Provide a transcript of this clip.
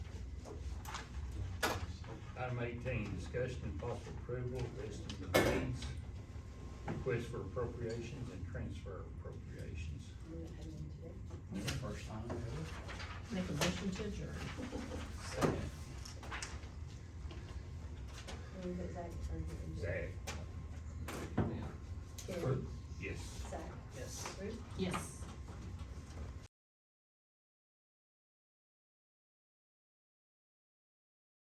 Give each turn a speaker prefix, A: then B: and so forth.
A: item eighteen, discussion and possible approval of list of needs, request for appropriations and transfer appropriations.
B: First time ever.
C: Make a motion to adjourn.
B: Second.
A: Zach?
B: Fruit.
A: Yes.
B: Yes.
C: Yes.